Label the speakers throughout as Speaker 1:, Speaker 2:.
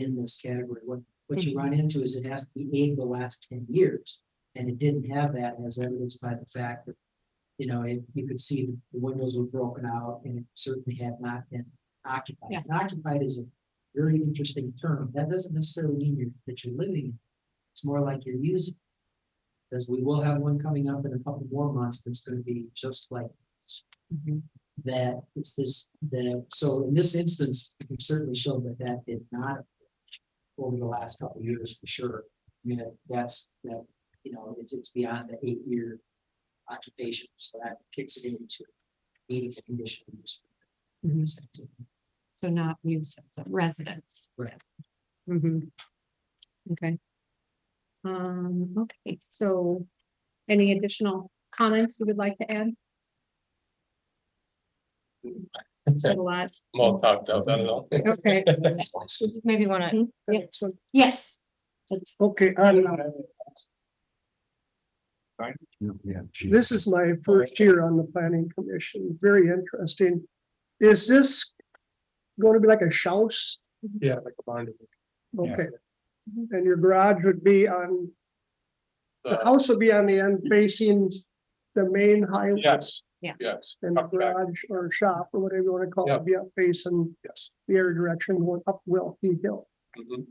Speaker 1: in this category. What, what you run into is it has to be eight of the last ten years. And it didn't have that as evidenced by the fact that, you know, it, you could see the windows were broken out and it certainly had not been occupied.
Speaker 2: Yeah.
Speaker 1: And Occupied is a very interesting term. That doesn't necessarily mean you're, that you're living. in it. It's more like you're using. Because we will have one coming up in a couple more months that's gonna be just like
Speaker 3: Mm-hmm,
Speaker 1: that it's this, the, so in this instance, we certainly showed that that did not. Over the last couple of years, for sure, I mean, that- that's, that, you know, it's, it's beyond the eight-year occupation, so that kicks it into. Eighty condition. use.
Speaker 3: mm-hmm.
Speaker 2: Mhm. So not use as a residence.
Speaker 1: Right.
Speaker 2: Mhm. Okay. Um, okay, so any additional comments you would like to add? Said a lot.
Speaker 4: More talked out, I don't know.
Speaker 2: Okay.
Speaker 3: Maybe wanna.
Speaker 2: Yeah. Yes. That's
Speaker 5: Okay, I'm, this is my first year on the planning commission, very interesting. Is this going to be like a house?
Speaker 4: Yeah, like a barn.
Speaker 5: Okay. And your garage would be on, the
Speaker 4: Uh,
Speaker 5: house would be on the end facing the main highway.
Speaker 4: Yes.
Speaker 2: Yeah.
Speaker 4: Yes.
Speaker 5: And the
Speaker 4: Up back,
Speaker 5: garage or shop or whatever you wanna call it, be up facing
Speaker 4: Yes.
Speaker 5: the air direction going up Wilkie Hill.
Speaker 4: Mhm.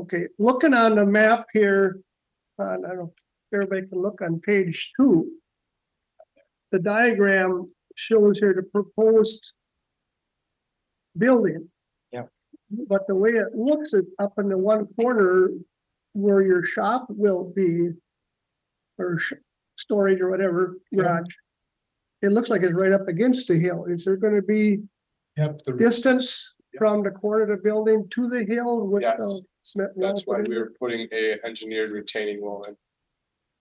Speaker 5: Okay, looking on the map here, uh, I don't know, if everybody can look on page two. The diagram shows here the proposed building.
Speaker 4: Yep.
Speaker 5: But the way it looks is up in the one corner where your shop will be or sh- storage or whatever garage. It looks like it's right up against the hill. Is there gonna be
Speaker 4: Yep, the-
Speaker 5: distance
Speaker 4: Yep.
Speaker 5: from the corner of the building to the hill with
Speaker 4: Yes.
Speaker 5: the cement wall
Speaker 4: that's why
Speaker 5: put in?
Speaker 4: we were putting a engineered retaining wall in.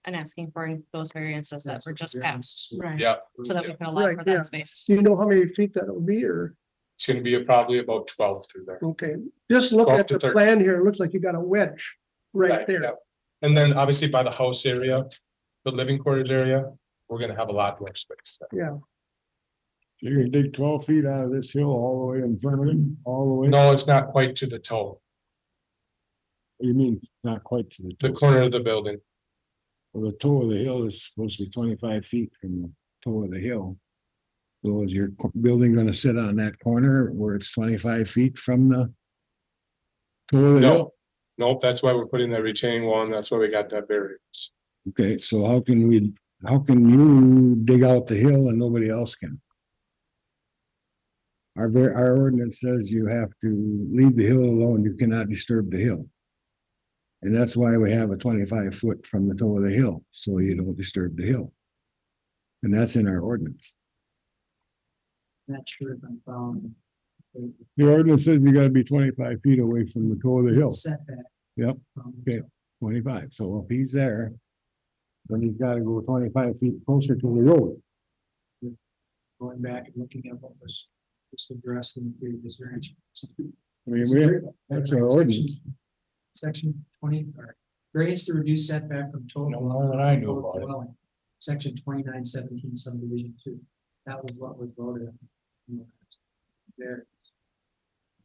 Speaker 3: And asking for those variances that were just passed,
Speaker 2: right.
Speaker 4: Yeah,
Speaker 3: so that we can allow
Speaker 5: Right,
Speaker 3: for
Speaker 5: yeah.
Speaker 3: that space.
Speaker 5: Do you know how many feet that'll be or,
Speaker 4: it's gonna be probably about twelve through there.
Speaker 5: okay, just look
Speaker 4: 12
Speaker 5: at
Speaker 4: to
Speaker 5: the
Speaker 4: 13.
Speaker 5: plan here. It looks like you got a wedge right there.
Speaker 4: yeah. And then obviously by the house area, the living quarters area, we're gonna have a lot more space. there.
Speaker 5: Yeah,
Speaker 6: You're gonna dig twelve feet out of this hill all the way in front of him, all the way,
Speaker 4: No, it's not quite to the toe,
Speaker 6: you mean, not quite to the
Speaker 4: the
Speaker 6: toe.
Speaker 4: corner of the building.
Speaker 6: Well, The toe of the hill is supposed to be twenty-five feet from the toe of the hill. So is your co- building gonna sit on that corner where it's twenty-five feet from the? Toe of the hill?
Speaker 4: No, nope, that's why we're putting that retaining wall and that's why we got that variance.
Speaker 6: Okay, so how can we, how can you dig out the hill and nobody else can? Our, ver- our ordinance says you have to leave the hill alone, you cannot disturb the hill. And that's why we have a twenty-five foot from the toe of the hill, so you don't disturb the hill. And that's in our ordinance.
Speaker 1: Not sure if I'm following. the-
Speaker 6: The ordinance says you gotta be twenty-five feet away from the toe of the
Speaker 1: the
Speaker 6: hill,
Speaker 1: Setback.
Speaker 6: Yep.
Speaker 1: Um,
Speaker 6: Okay. twenty-five, so if he's there. Then he's gotta go twenty-five feet closer to the road.
Speaker 1: Going back and looking at what was just addressed in the previous variance.
Speaker 6: I mean, we, that's our ordinance.
Speaker 1: Section twenty, or variance to reduce setback from total.
Speaker 6: No more than I knew
Speaker 1: total
Speaker 6: about it.
Speaker 1: dwelling, Section twenty-nine seventeen subdivision two, that was what was voted. on. There,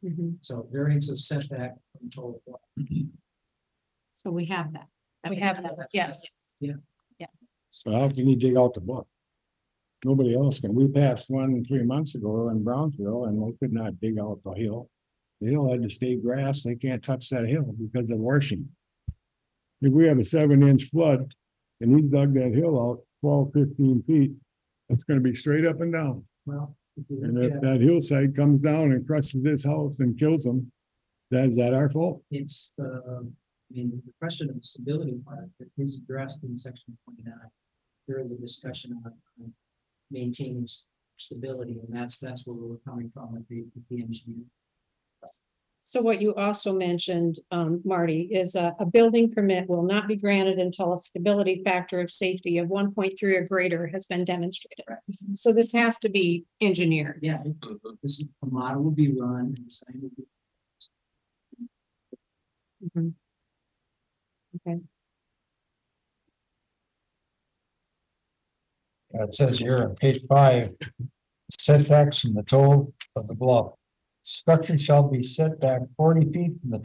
Speaker 2: Mhm.
Speaker 1: so variance of setback from total. dwelling.
Speaker 2: So we have that.
Speaker 3: We
Speaker 2: was-
Speaker 3: have that, yes.
Speaker 6: So how can you dig out the book? Nobody else can. We passed one three months ago in Brownsville and we could not dig out the hill. The hill had to stay grass. They can't touch that hill because of washing. If we have a seven inch flood and he's dug that hill out 12, 15 feet, it's gonna be straight up and down.
Speaker 1: Well. if you
Speaker 6: And
Speaker 1: look
Speaker 6: if
Speaker 1: at
Speaker 6: that hillside comes down and crushes this house and kills them, that is that our fault?
Speaker 1: It's the, I mean, the question of stability part that is addressed in section twenty-nine. There is a discussion on on maintaining s- stability, and that's, that's where we're coming from with the, with the engineer.
Speaker 2: So what you also mentioned, um, Marty, is a, a building permit will not be granted until a stability factor of safety of one point three or greater has been demonstrated. So this has to be engineered.
Speaker 1: Yeah,
Speaker 3: Mm-hmm.
Speaker 1: this, is- a model will be run and the sign will be.
Speaker 2: Mhm. Okay.
Speaker 7: It says here on page five, setbacks from the toe of the bluff. Structure shall be set back forty feet from the